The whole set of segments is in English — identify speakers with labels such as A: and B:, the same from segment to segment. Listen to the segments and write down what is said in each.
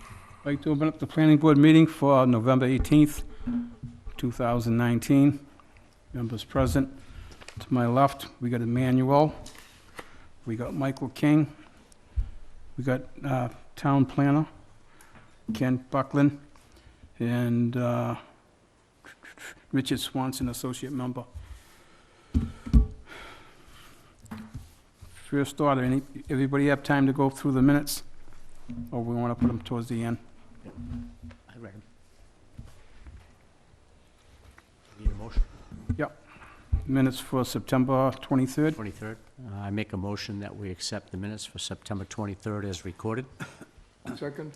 A: I'd like to open up the planning board meeting for November 18th, 2019. Members present. To my left, we got Emmanuel. We got Michael King. We got uh, Town Planner, Ken Buckland, and uh, Richard Swanson, Associate Member. First order, any, everybody have time to go through the minutes? Or we want to put them towards the end?
B: I reckon. Need a motion?
A: Minutes for September 23rd.
B: 23rd. Uh, I make a motion that we accept the minutes for September 23rd as recorded.
C: Second?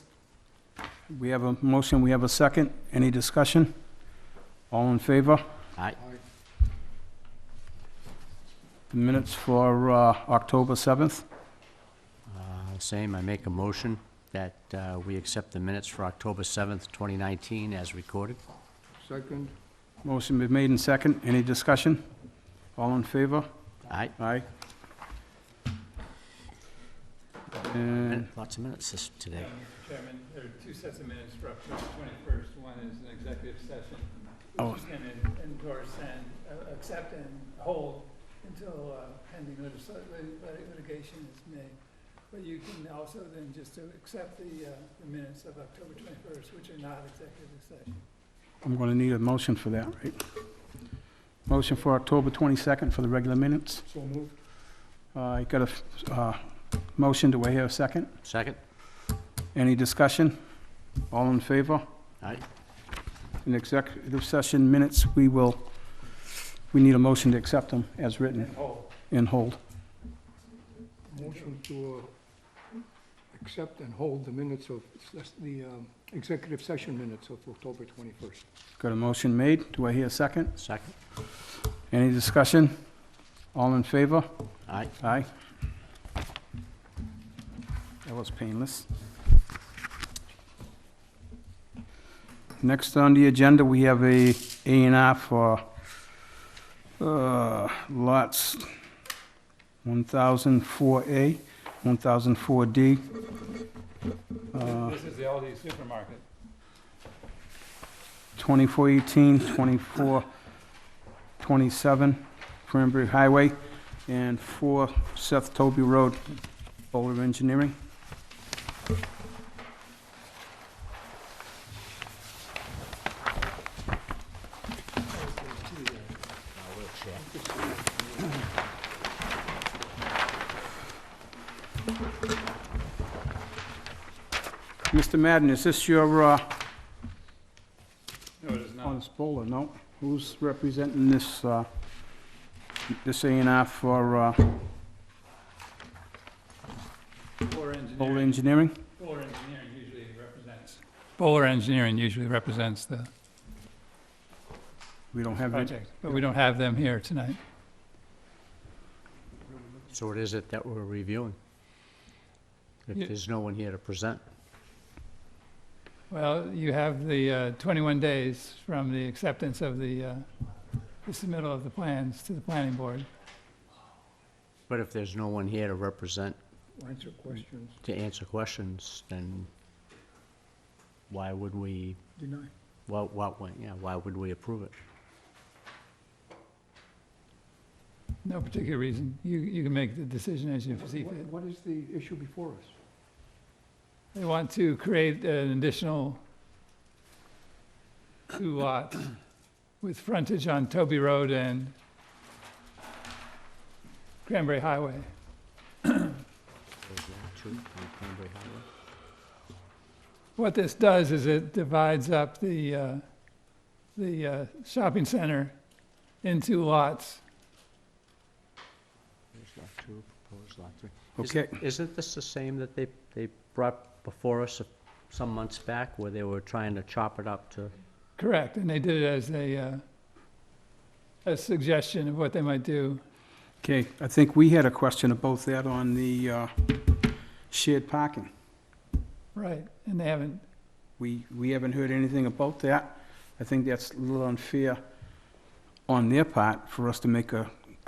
A: We have a motion, we have a second. Any discussion? All in favor?
B: Aye.
A: The Minutes for uh, October 7th.
B: Uh, Same, I make a motion that uh, we accept the minutes for October 7th, 2019 as recorded.
C: Second?
A: Motion been made and second. Any discussion? All in favor?
B: Aye.
A: Aye. And
B: Lots of minutes this- today.
D: Mr. Chairman, there are two sets of minutes for October 21st. One is an executive session,
A: Oh.
D: which is going to endorse and uh, accept and hold until uh, pending litis- lit- lit- litigation is made. But you can also then just to accept the uh, the minutes of October 21st, which are not executive session.
A: I'm going to need a motion for that, right? Motion for October 22nd for the regular minutes.
C: So moved.
A: Uh, I got a f- uh, motion. Do I hear a second?
B: Second?
A: Any discussion? All in favor?
B: Aye.
A: In executive session minutes, we will, we need a motion to accept them as written
D: And hold.
A: and hold.
C: Motion to uh, accept and hold the minutes of, ses- the um, executive session minutes of October 21st.
A: Got a motion made. Do I hear a second?
B: Second?
A: Any discussion? All in favor?
B: Aye.
A: Aye. That was painless. Next on the agenda, we have a A and R for uh, lots 1004A, 1004D. Uh,
D: This is the Aldi supermarket.
A: 2418, 2427 Cranberry Highway, and 4 Seth Toby Road, Boulder Engineering. Mr. Madden, is this your, uh,
D: No, it is not.
A: on this Bowler, no? Who's representing this, uh, this A and R for, uh,
D: Fuller
A: Bowler
D: Engineering,
A: Engineering?
D: Fuller Engineering usually represents. Fuller Engineering usually represents the
A: We don't have it.
D: project, but we don't have them here tonight.
B: So what is it that we're reviewing? If
D: Yeah.
B: there's no one here to present.
D: Well, you have the uh, 21 days from the acceptance of the, uh, the submittal of the plans to the planning board.
B: But if there's no one here to represent,
C: Answer questions.
B: to answer questions, then why would we
C: Deny.
B: Why, why, why- yeah, why would we approve it?
D: No particular reason. You, you can make the decision as you see fit.
C: What is the issue before us?
D: They want to create an additional two lots with frontage on Toby Road and Cranberry Highway. What this does is it divides up the, uh, the uh, shopping center into lots.
B: Is it-
A: Okay,
B: Isn't this the same that they, they brought before us a- some months back, where they were trying to chop it up to?
D: Correct, and they did it as a, uh, a suggestion of what they might do.
A: okay, I think we had a question about that on the, uh, shared parking.
D: Right, and they haven't,
A: We, we haven't heard anything about that. I think that's a little unfair on their part for us to make a